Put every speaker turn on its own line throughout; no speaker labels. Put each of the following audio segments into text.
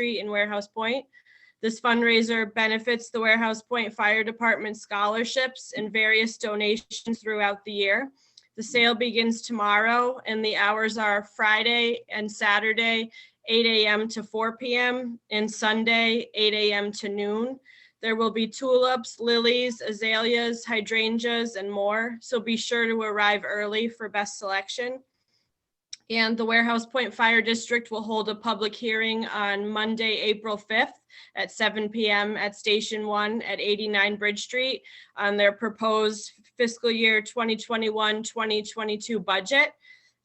Street and Warehouse Point. This fundraiser benefits the Warehouse Point Fire Department scholarships and various donations throughout the year. The sale begins tomorrow and the hours are Friday and Saturday, 8 AM to 4 PM, and Sunday, 8 AM to noon. There will be tulips, lilies, azaleas, hydrangeas, and more, so be sure to arrive early for best selection. And the Warehouse Point Fire District will hold a public hearing on Monday, April 5th at 7 PM at Station 1 at 89 Bridge Street on their proposed fiscal year 2021, 2022 budget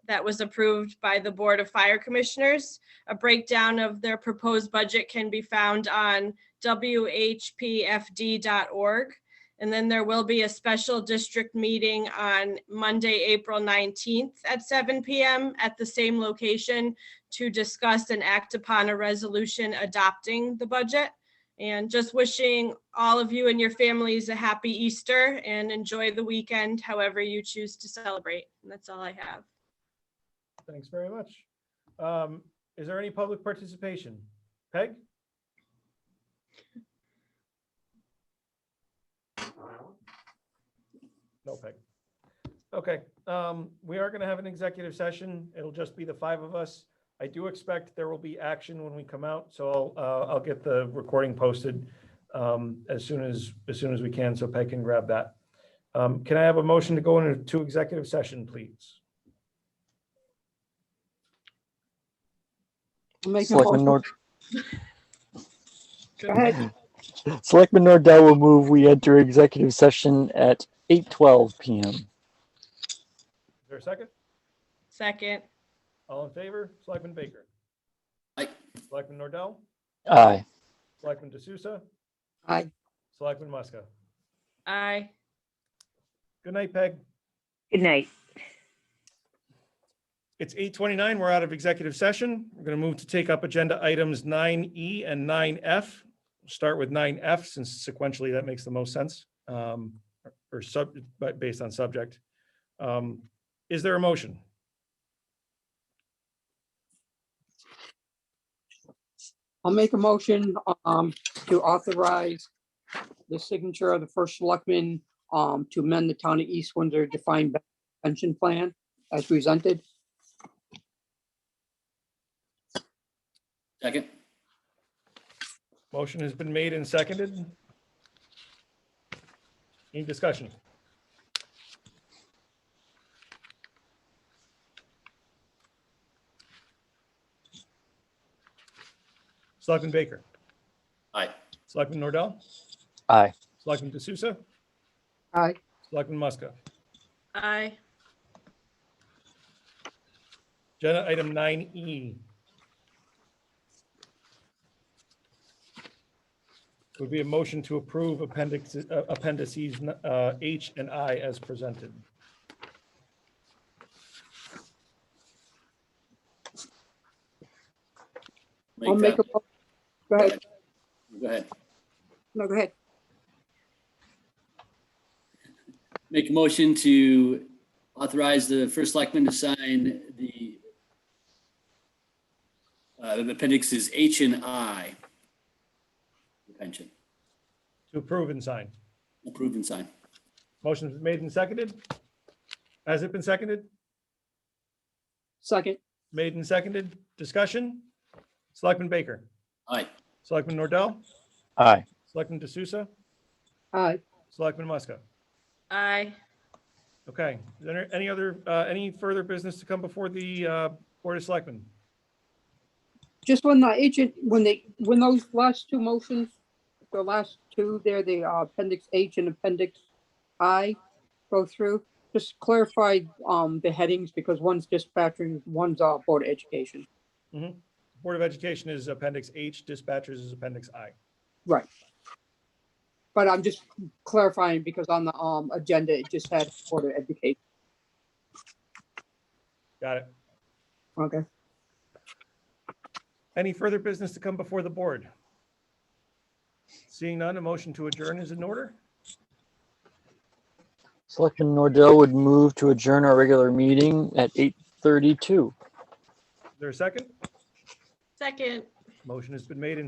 that was approved by the Board of Fire Commissioners. A breakdown of their proposed budget can be found on whpfd.org. And then there will be a special district meeting on Monday, April 19th at 7 PM at the same location to discuss and act upon a resolution adopting the budget. And just wishing all of you and your families a happy Easter and enjoy the weekend, however you choose to celebrate. And that's all I have.
Thanks very much. Um, Is there any public participation? Peg? No, Peg. Okay, um, we are going to have an executive session. It'll just be the five of us. I do expect there will be action when we come out, so I'll, uh, I'll get the recording posted um, as soon as, as soon as we can, so Peg can grab that. Um, Can I have a motion to go into executive session, please?
I'll Make a
Selectman
motion.
Nord,
Go ahead.
Selectman Nordell will move we enter executive session at eight twelve PM.
Is there a second?
Second,
All in favor, Selectman Baker.
Aye.
Selectman Nordell,
Aye.
Selectman D'Souza,
Aye.
Selectman Muska.
aye.
Good night, Peg.
Good night.
It's eight twenty-nine. We're out of executive session. We're going to move to take up agenda items nine E and nine F. Start with nine F since sequentially that makes the most sense, um, or sub, but based on subject. Um, Is there a motion?
I'll make a motion um to authorize the signature of the first selectman um to amend the town of East Windsor defined pension plan as presented.
Second.
Motion has been made and seconded. Any discussion? Selectman Baker,
Aye.
Selectman Nordell,
Aye.
Selectman D'Souza,
Aye.
Selectman Muska.
Aye.
Agenda item nine E. Would be a motion to approve appendix, uh, appendices uh, H and I as presented.
I'll make a.
that-
mo- Go ahead.
Go ahead.
No, go ahead.
Make a motion to authorize the first selectman to sign the uh, the appendixes H and I. The Pension,
To approve and sign.
approved and signed.
Motion's been made and seconded. Has it been seconded?
Second.
Made and seconded. Discussion? Selectman Baker,
Aye.
Selectman Nordell,
Aye.
Selectman D'Souza,
Aye.
Selectman Muska.
Aye.
Okay, is there any other, uh, any further business to come before the uh, Board of Selectmen?
Just when the agent, when they, when those last two motions, the last two there, the uh, appendix H and appendix I go through, just clarify um the headings because one's dispatching, one's uh Board of Education.
Board of Education is Appendix H, dispatchers is Appendix I.
But I'm just clarifying because on the um agenda, it just had Board of Education.
Got it.
Okay.
Any further business to come before the board? Seeing none, a motion to adjourn is in order.
Selectman Nordell would move to adjourn our regular meeting at eight thirty-two.
Is there a second?
Second,
Motion has been made and